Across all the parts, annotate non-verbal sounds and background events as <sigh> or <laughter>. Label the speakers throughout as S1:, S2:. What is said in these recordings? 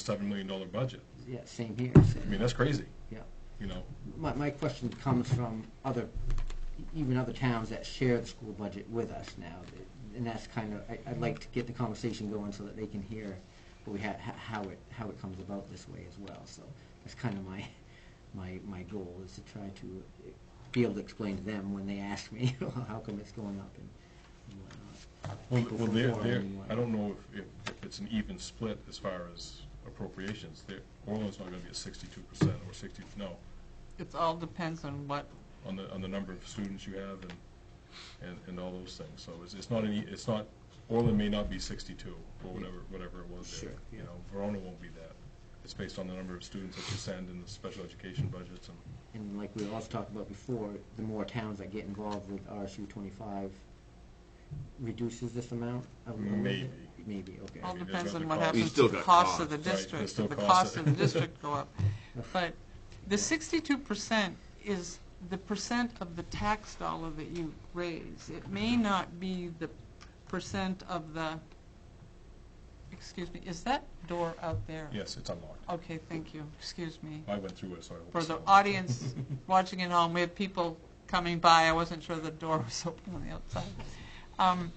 S1: seven million dollar budget.
S2: Yeah, same here.
S1: I mean, that's crazy,
S2: Yeah.
S1: you know.
S2: My, my question comes from other, even other towns that share the school budget with us now. And that's kind of, I, I'd like to get the conversation going so that they can hear what we had, how it, how it comes about this way as well. So that's kind of my, my, my goal is to try to be able to explain to them when they ask me, <laughs> how come it's going up and and whatnot.
S1: Well,
S2: People
S1: well,
S2: from
S1: they're,
S2: Gorham
S1: they're,
S2: and whatnot.
S1: I don't know if, if- if it's an even split as far as appropriations. There, Orland's not gonna be at sixty-two percent or sixty, no,
S3: It all depends on what,
S1: on the, on the number of students you have and, and, and all those things. So it's, it's not any, it's not, Orland may not be sixty-two or whatever, whatever it was there.
S2: Sure,
S1: You
S2: yeah.
S1: know, Verona won't be that. It's based on the number of students that you send and the special education budgets and,
S2: And like we also talked about before, the more towns that get involved with RSU twenty-five reduces this amount? of- of-
S1: Maybe.
S2: Maybe, okay.
S1: Well,
S3: all
S1: mean, there's
S3: depends
S1: nothing
S3: on what
S1: cost.
S4: You
S3: happens
S4: still
S3: to the
S4: got
S3: cost of the
S4: costs,
S1: right,
S3: district.
S1: there's still
S3: If the
S1: costs.
S3: cost of the district go up. But the sixty-two percent is the percent of the tax dollar that you raise. It may
S1: Mm-hmm.
S3: not be the percent of the, excuse me, is that door out there?
S1: yes, it's unlocked.
S3: Okay, thank you, excuse me.
S1: I went through it, so I hope
S3: For
S1: it's
S3: the
S1: unlocked.
S3: audience watching at home, we had people coming by, I wasn't sure the door was open on the outside. Um,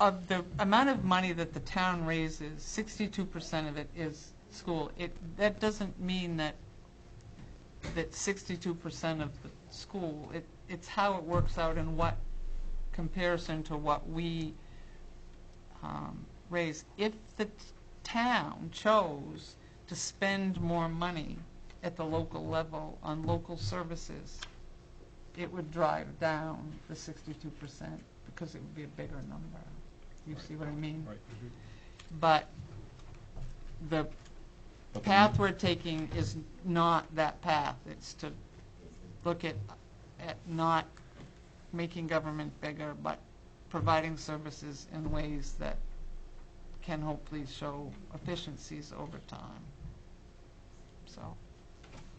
S3: Of the amount of money that the town raises, sixty-two percent of it is school. It, that doesn't mean that, that sixty-two percent of the school, it, it's how it works out and what comparison to what we um, raise. If the t- town chose to spend more money at the local level on local services, it would drive down the sixty-two percent because it would be a bigger number. You see what I mean?
S1: Right.
S3: But the
S1: But the-
S3: path we're taking is not that path. It's to look at, at not making government bigger, but providing services in ways that can hopefully show efficiencies over time. So,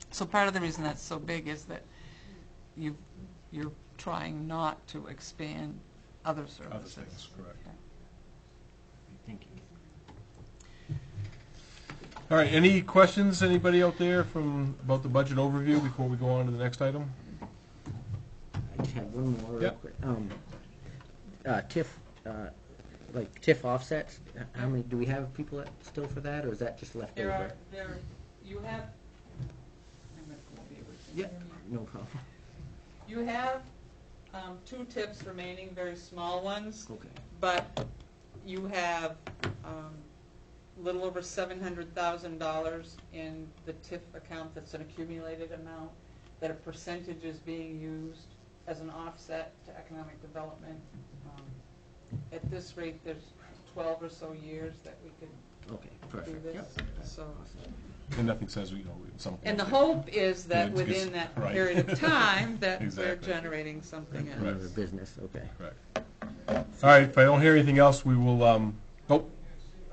S3: so part of the reason that's so big is that you, you're trying not to expand other
S1: Other
S3: services.
S1: things, correct.
S2: Thank you.
S5: All right, any questions, anybody out there from, about the budget overview before we go on to the next item?
S2: I just have one more real
S5: Yep.
S2: quick. Um, uh, TIF, uh, like TIF offsets, h- how many, do we have people that- still for that, or is that just left
S3: There are,
S2: over?
S3: there, you have,
S2: Yeah, no problem.
S3: You have um, two tips remaining, very small ones,
S2: Okay,
S3: but you have um, a little over seven hundred thousand dollars in the TIF account that's an accumulated amount, that a percentage is being used as an offset to economic development. Um, At this rate, there's twelve or so years that we could
S2: okay,
S3: do
S2: perfect.
S3: this,
S2: Yep.
S3: so.
S2: Awesome.
S1: And nothing says, you know, at some point.
S3: And the
S1: that-
S3: hope is that
S1: Yeah, it's-
S3: within that
S1: right.
S3: period of time, that we're
S1: Exactly.
S3: generating something else.
S2: Another business, okay.
S1: Correct.
S5: All right, if I don't hear anything else, we will, um, oh,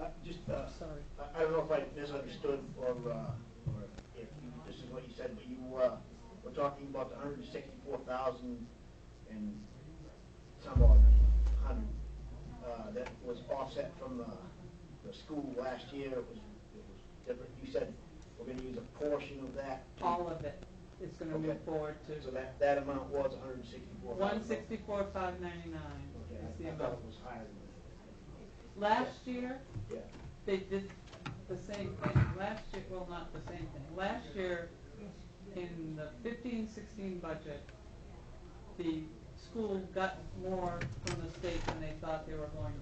S6: Uh, Just, uh,
S3: Sorry.
S6: I- I don't know if I misunderstood or uh, or if you- this is what you said, but you uh, were talking about the hundred and sixty-four thousand and some odd hundred uh, that was offset from the, the school last year. It was, it was different. You said we're gonna use a portion of that.
S3: all of it is going to move
S6: Okay.
S3: forward
S6: So
S3: to
S6: that, that amount was a hundred and sixty-four
S3: one
S6: thousand.
S3: sixty-four, five ninety-nine is
S6: Okay,
S3: the
S6: I thought
S3: amount.
S6: it was higher than
S3: Last year,
S6: that. Yeah.
S3: they did the same thing, last year, well, not the same thing, last year, in the fifteen, sixteen budget, the school got more from the state than they thought they were going to.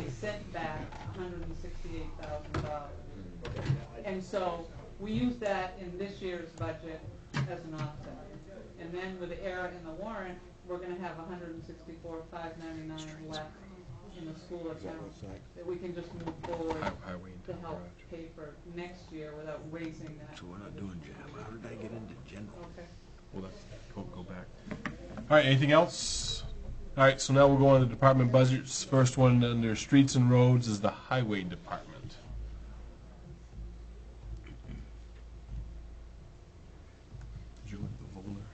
S3: They sent back hundred and sixty-eight thousand dollars.
S6: Okay, I-
S3: And so we use that in this year's budget as an offset. And then with the error in the warrant, we're gonna have hundred and sixty-four, five ninety-nine left in the school account that we can just move forward
S5: highway and
S3: to
S5: town
S3: help
S5: garage.
S3: pay for next year without raising that. So we're not doing general, how did I get into general? Okay.
S1: Well, that, go, go back.
S5: all right, anything else? All right, so now we'll go on to department budgets. First one under streets and roads is the highway department.
S1: Did you look at the folder?